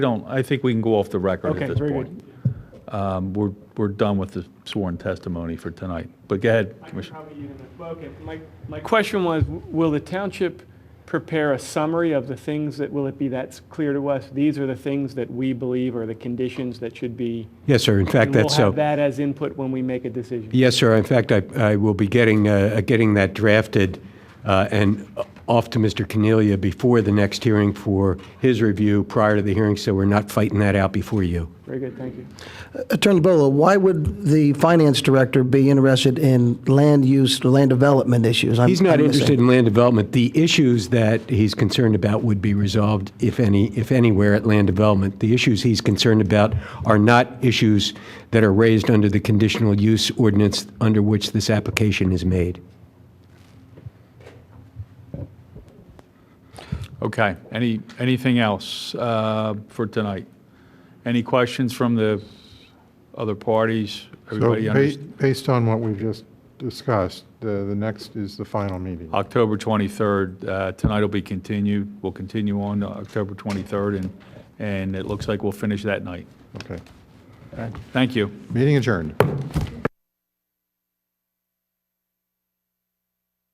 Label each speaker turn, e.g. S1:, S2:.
S1: don't, I think we can go off the record
S2: Okay,
S1: at this
S2: very good.
S1: point. Um, We're, we're done with the sworn testimony for tonight, but go ahead,
S2: I can
S1: Commissioner.
S2: probably use it. Well, Okay, my, my question was, w- will the township prepare a summary of the things that, will it be that's clear to us? These are the things that we believe are the conditions that should be.
S3: Yes, sir. In fact,
S2: And we'll
S3: that's so.
S2: have that as input when we make a decision.
S3: Yes, sir. In fact, I, I will be getting, uh, getting that drafted uh, and off to Mr. Cornelia before the next hearing for his review prior to the hearing, so we're not fighting that out before you.
S2: Very good, thank you.
S4: Attorney Bolo, why would the finance director be interested in land use, land development issues? I'm-
S3: He's not
S4: I'm missing.
S3: interested in land development. The issues that he's concerned about would be resolved, if any, if anywhere, at land development. The issues he's concerned about are not issues that are raised under the conditional use ordinance under which this application is made.
S1: Okay, any, anything else uh, for tonight? Any questions from the other parties?
S5: So
S1: Everybody
S5: ba-
S1: understands?
S5: based on what we've just discussed, the the next is the final meeting.
S1: October 23rd, uh, tonight will be continued, we'll continue on October 23rd, and, and it looks like we'll finish that night.
S5: Okay.
S1: Thank you.
S5: Meeting adjourned.